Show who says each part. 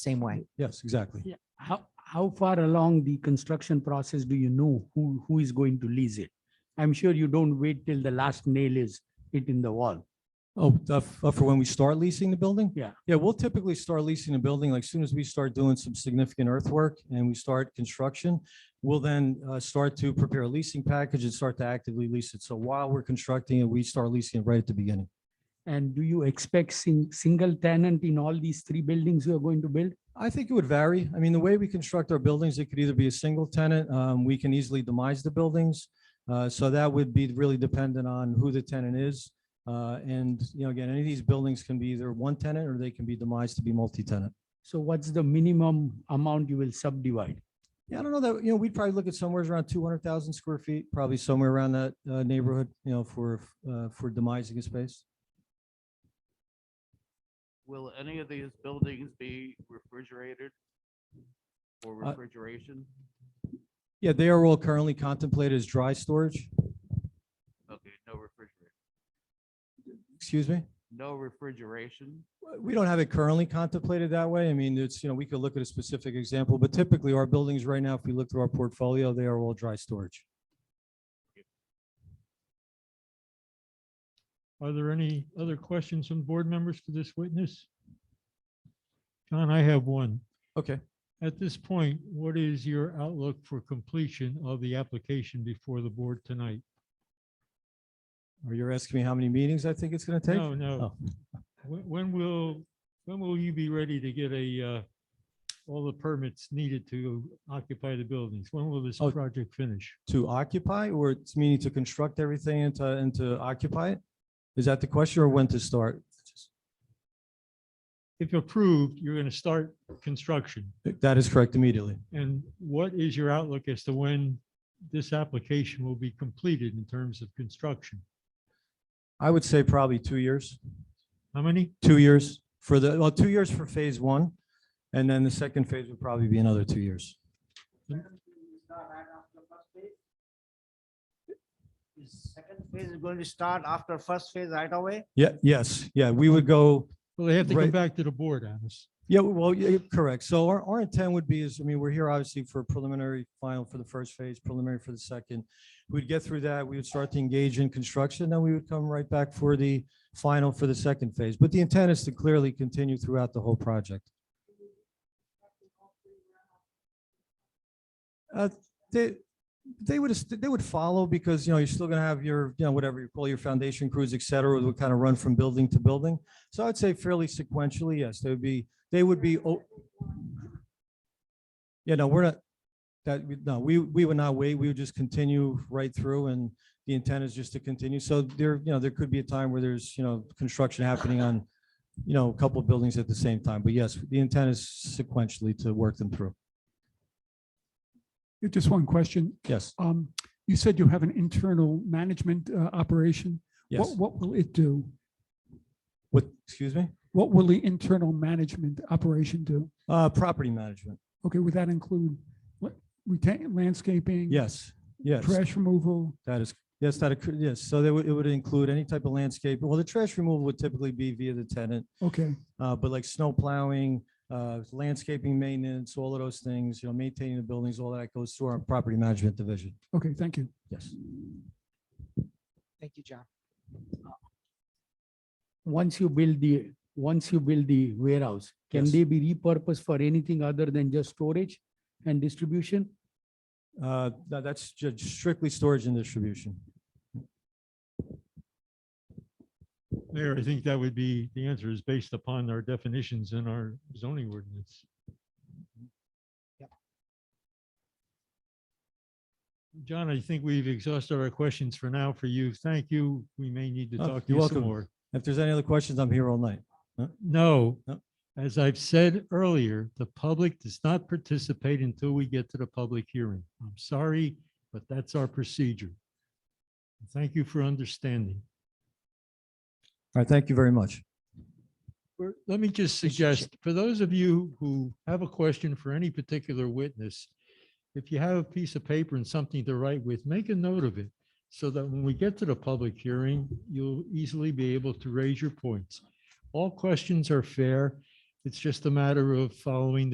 Speaker 1: same way.
Speaker 2: Yes, exactly.
Speaker 3: Yeah. How, how far along the construction process do you know who, who is going to lease it? I'm sure you don't wait till the last nail is hit in the wall.
Speaker 2: Oh, uh, f- uh, for when we start leasing the building?
Speaker 3: Yeah.
Speaker 2: Yeah, we'll typically start leasing the building, like soon as we start doing some significant earthwork and we start construction, we'll then uh, start to prepare a leasing package and start to actively lease it. So while we're constructing it, we start leasing it right at the beginning.
Speaker 3: And do you expect sing, single tenant in all these three buildings you are going to build?
Speaker 2: I think it would vary. I mean, the way we construct our buildings, it could either be a single tenant, um, we can easily demise the buildings. Uh, so that would be really dependent on who the tenant is. Uh, and, you know, again, any of these buildings can be either one tenant or they can be demised to be multi-tenant.
Speaker 3: So what's the minimum amount you will subdivide?
Speaker 2: Yeah, I don't know that, you know, we'd probably look at somewhere around two hundred thousand square feet, probably somewhere around that, uh, neighborhood, you know, for, uh, for demising a space.
Speaker 4: Will any of these buildings be refrigerated? Or
Speaker 2: Uh,
Speaker 4: refrigeration?
Speaker 2: Yeah, they are all currently contemplated as dry storage,
Speaker 4: Okay, no refrigeration.
Speaker 2: excuse me?
Speaker 4: No refrigeration?
Speaker 2: We don't have it currently contemplated that way. I mean, it's, you know, we could look at a specific example, but typically our buildings right now, if we look through our portfolio, they are all dry storage.
Speaker 5: Are there any other questions from board members for this witness? John, I have one.
Speaker 2: Okay.
Speaker 5: At this point, what is your outlook for completion of the application before the board tonight?
Speaker 2: Are you asking me how many meetings I think it's going to take? Oh.
Speaker 5: No, no. When, when will, when will you be ready to get a, uh, all the permits needed to occupy the buildings? When will this
Speaker 2: Oh.
Speaker 5: project finish?
Speaker 2: To occupy or it's meaning to construct everything and to, and to occupy it? Is that the question or when to start?
Speaker 5: If approved, you're going to start construction.
Speaker 2: That is correct immediately.
Speaker 5: And what is your outlook as to when this application will be completed in terms of construction?
Speaker 2: I would say probably two years,
Speaker 5: How many?
Speaker 2: two years for the, well, two years for phase one. And then the second phase would probably be another two years.
Speaker 6: Second phase is going to start after first phase right away.
Speaker 2: Yeah, yes, yeah, we would go
Speaker 5: Well, they have to come
Speaker 2: Right.
Speaker 5: back to the board, Alice.
Speaker 2: Yeah, well, yeah, correct. So our, our intent would be is, I mean, we're here obviously for preliminary final for the first phase, preliminary for the second. We'd get through that, we would start to engage in construction, then we would come right back for the final for the second phase. But the intent is to clearly continue throughout the whole project. Uh, They, they would, they would follow because, you know, you're still going to have your, you know, whatever you call your foundation crews, et cetera, would kind of run from building to building. So I'd say fairly sequentially, yes, there would be, they would be, o- yeah, no, we're not, that, we- no, we, we would not wait. We would just continue right through and the intent is just to continue. So there, you know, there could be a time where there's, you know, construction happening on, you know, a couple of buildings at the same time. But yes, the intent is sequentially to work them through.
Speaker 7: Yeah, Just one question.
Speaker 2: Yes,
Speaker 7: Um, you said you have an internal management uh, operation.
Speaker 2: yes.
Speaker 7: What, what will it do?
Speaker 2: What, excuse me?
Speaker 7: What will the internal management operation do?
Speaker 2: Uh, property management.
Speaker 7: Okay, would that include what, retain, landscaping?
Speaker 2: Yes, yes.
Speaker 7: Trash removal?
Speaker 2: That is, yes, that, occur- yes. So that would, it would include any type of landscape. Well, the trash removal would typically be via the tenant.
Speaker 7: Okay,
Speaker 2: Uh, but like snow plowing, uh, landscaping maintenance, all of those things, you know, maintaining the buildings, all that goes through our property management division.
Speaker 7: okay, thank you.
Speaker 2: Yes.
Speaker 1: Thank you, John.
Speaker 3: Once you build the, once you build the warehouse, can
Speaker 2: Yes.
Speaker 3: they be repurposed for anything other than just storage and distribution?
Speaker 2: Uh, tha- that's ju- strictly storage and distribution.
Speaker 5: Mayor, I think that would be, the answer is based upon our definitions in our zoning ordinance. John, I think we've exhausted our questions for now for you. Thank you. We may need to
Speaker 2: Oh,
Speaker 5: talk to
Speaker 2: you're
Speaker 5: you some
Speaker 2: welcome.
Speaker 5: more.
Speaker 2: If there's any other questions, I'm here all night.
Speaker 5: No,
Speaker 2: No.
Speaker 5: as I've said earlier, the public does not participate until we get to the public hearing. I'm sorry, but that's our procedure. Thank you for understanding.
Speaker 2: All right, thank you very much.
Speaker 5: We're- Let me just suggest, for those of you who have a question for any particular witness, if you have a piece of paper and something to write with, make a note of it so that when we get to the public hearing, you'll easily be able to raise your points. All questions are fair It's just a matter of following the